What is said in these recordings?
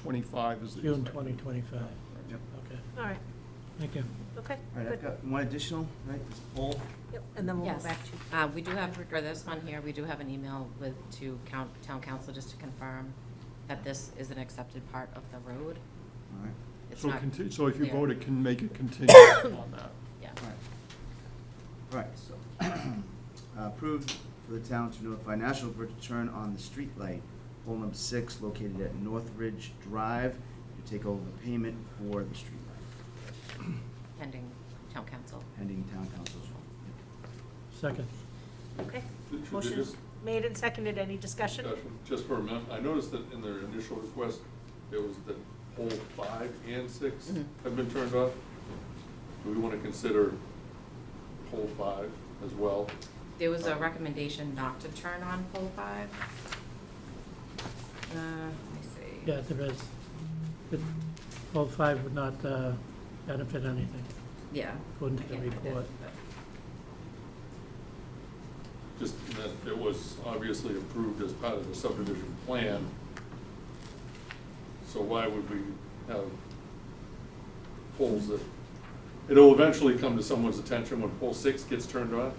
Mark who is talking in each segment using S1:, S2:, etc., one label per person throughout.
S1: 2025 is the.
S2: June
S1: expected.
S2: 2025.
S1: Right.
S3: Yep.
S2: Okay,
S4: All right,
S2: thank you.
S4: okay,
S3: All right, I've
S4: good.
S3: got one additional, right, this poll.
S4: Yep, And then we'll go
S5: Yes.
S4: back to.
S5: Uh, We do have, for this one here, we do have an email with, to count, town council, just to confirm that this is an accepted part of the road.
S3: All right,
S5: It's
S1: So
S5: not-
S1: conti- so if you
S5: clear.
S1: vote, it can make it continue on that.
S5: Yeah.
S3: all right. All right, so, approved for the town to notify National Grid to turn on the street light, pole number six, located at Northridge Drive, to take over payment for the street light,
S5: Pending town council.
S3: pending town council's. Yep.
S2: Second,
S5: Uh,
S4: Okay.
S6: Did you
S4: Motion
S6: just-
S4: made and seconded. Any discussion?
S6: Discussion, Just for a minute, I noticed that in their initial request, it was that pole five and six
S5: Mhm.
S6: have been turned off. Do we want to consider pole five as well?
S5: There was a recommendation not to turn on pole five. Uh, Let me see.
S2: yeah, there is. But Poll five would not uh, benefit anything,
S5: Yeah.
S2: according to
S5: I
S2: the
S5: can't find it,
S2: report.
S5: but-
S6: Just that it was obviously approved as part of the subdivision plan. So why would we have poles that, it'll eventually come to someone's attention when pole six gets turned on.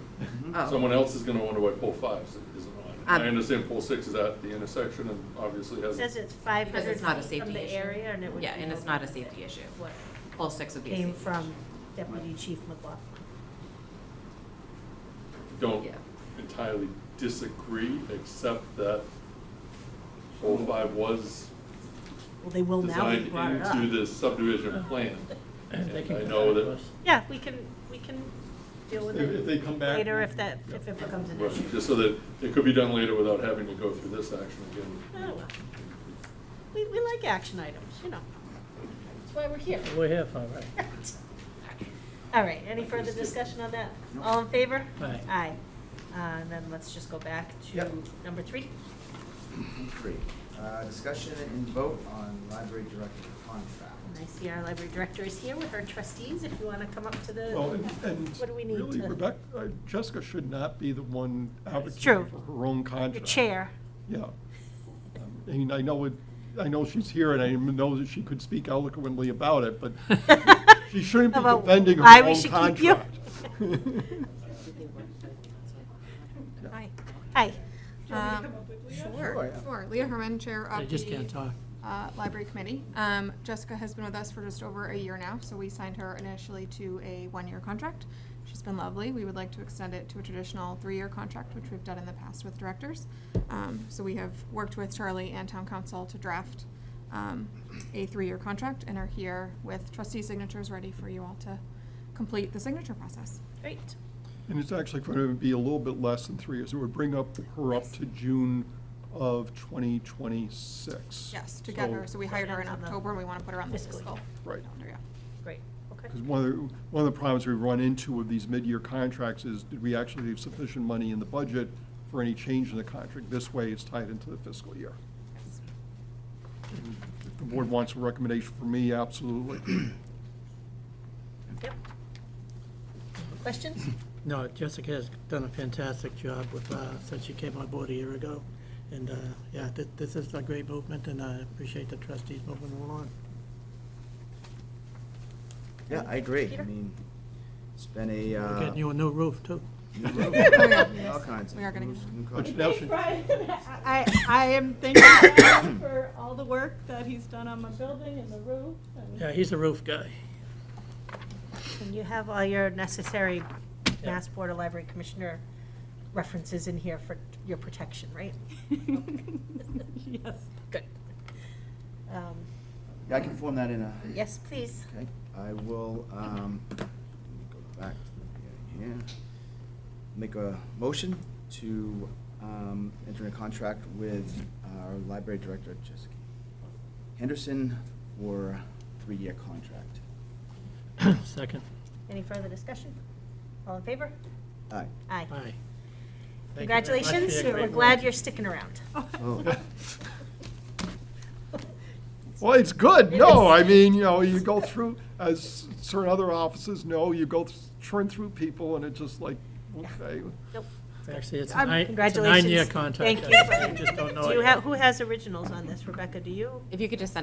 S5: Oh.
S6: Someone else is gonna wonder why pole five isn't on. I
S5: Um,
S6: understand pole six is at the intersection and obviously
S4: It
S6: has.
S4: Says it's five
S5: Because
S4: hundred
S5: it's not a
S4: feet
S5: safety issue.
S4: from the area and it would.
S5: Yeah,
S4: be
S5: and it's
S4: no
S5: not a
S4: benefit.
S5: safety issue.
S4: What
S5: Pole six would be a safety
S4: came
S5: issue.
S4: from Deputy Chief McLaughlin.
S6: Don't
S5: Yeah.
S6: entirely disagree, except that pole five was
S4: Well, they will now be
S6: designed
S4: brought it up.
S6: into the subdivision plan.
S2: They can
S6: I
S2: come
S6: know
S2: back to
S6: that-
S2: us.
S4: Yeah, we can, we can deal with
S1: If if they
S4: it
S1: come back.
S4: later
S1: we-
S4: if that, if it becomes an
S6: Right,
S4: issue.
S6: Just so that it could be done later without having to go through this action
S4: Oh,
S6: again.
S4: well. We, we like action items, you know. That's why we're here.
S2: We're here for, right?
S4: All right, any further discussion on that?
S3: Nope.
S4: All in favor?
S2: Aye.
S4: Aye. Uh, And then let's just go back to
S3: Yep.
S4: number three.
S3: Item Three, uh, discussion and vote on library director contract.
S4: And I see our library director is here with her trustees, if you want to come up to the,
S1: Well, and- and
S4: what do we need to?
S1: really, Rebecca, uh, Jessica should not be the one
S4: true.
S1: advocating for her own
S4: The
S1: contract.
S4: chair.
S1: Yeah. I mean, I know it, I know she's here and I know that she could speak eloquently about it, but she shouldn't be
S4: About
S1: defending
S4: why
S1: her
S4: we
S1: own
S4: should keep you.
S1: contract.
S5: Yeah.
S7: Hi.
S4: Hi.
S7: Do you want me to
S5: Um,
S7: come up with Leah?
S3: Sure,
S7: Sure,
S3: yeah.
S7: sure. Leah Herman, Chair
S2: They
S7: of
S2: just can't
S7: the
S2: talk.
S7: uh, Library Committee. Um, Jessica has been with us for just over a year now, so we signed her initially to a one-year contract. She's been lovely. We would like to extend it to a traditional three-year contract, which we've done in the past with directors. Um, So we have worked with Charlie and Town Council to draft um, a three-year contract and are here with trustee signatures ready for you all to complete the signature process.
S4: Great.
S1: And it's actually going to be a little bit less than three years. It would bring up, her up to June of 2026.
S7: Yes, to get her, so we hired her in
S4: Ends on the
S7: October, and we want to put her on the
S4: fiscal
S7: fiscal
S1: year. Right.
S7: calendar, yeah.
S4: Great, okay.
S1: Because one of, the one of the problems we run into with these mid-year contracts is, did we actually leave sufficient money in the budget for any change in the contract? This way, it's tied into the fiscal year. And If the board wants a recommendation from me, absolutely.
S4: Yep. Questions?
S2: No, Jessica has done a fantastic job with, uh, since she came on board a year ago. And, uh, yeah, thi- this is a great movement, and I appreciate the trustees moving along.
S3: Yeah, I agree. I
S4: Peter?
S3: mean, it's been a,
S2: We're
S3: uh.
S2: getting you a new roof, too.
S3: new road. All kinds of.
S7: We are gonna-
S3: moves and
S1: But
S3: colors.
S1: now she-
S7: I-
S8: I, I am thanking Brian for all the work that he's done on my building and the roof and
S2: Yeah, he's a roof guy.
S4: And you have all your necessary Mass Board of Library Commissioner references in here for your protection, right?
S8: yes.
S4: Good. Um,
S3: Yeah, I can form that in a.
S4: Yes, please.
S3: Okay, I will, um, let me go back to the beginning here. Make a motion to, um, enter a contract with our library director, Jessica Henderson, for a three-year contract.
S2: Second,
S4: Any further discussion? All in favor?
S3: Aye.
S4: Aye.
S2: aye. Thank you very much for your
S4: Congratulations, we're
S2: great
S4: glad
S2: work.
S4: you're sticking around.
S3: Oh,
S1: Well, it's good, no, I mean, you know, you go through, as certain other offices know, you go th- churn through people and it's just like, okay.
S4: Nope.
S2: Actually, it's a
S4: Um,
S2: nine, it's a
S4: congratulations.
S2: nine-year contract.
S4: Thank you.
S2: I just don't know
S4: Do
S2: it
S4: you
S2: yet.
S4: have, who has originals on this? Rebecca, do you?
S5: If you could just send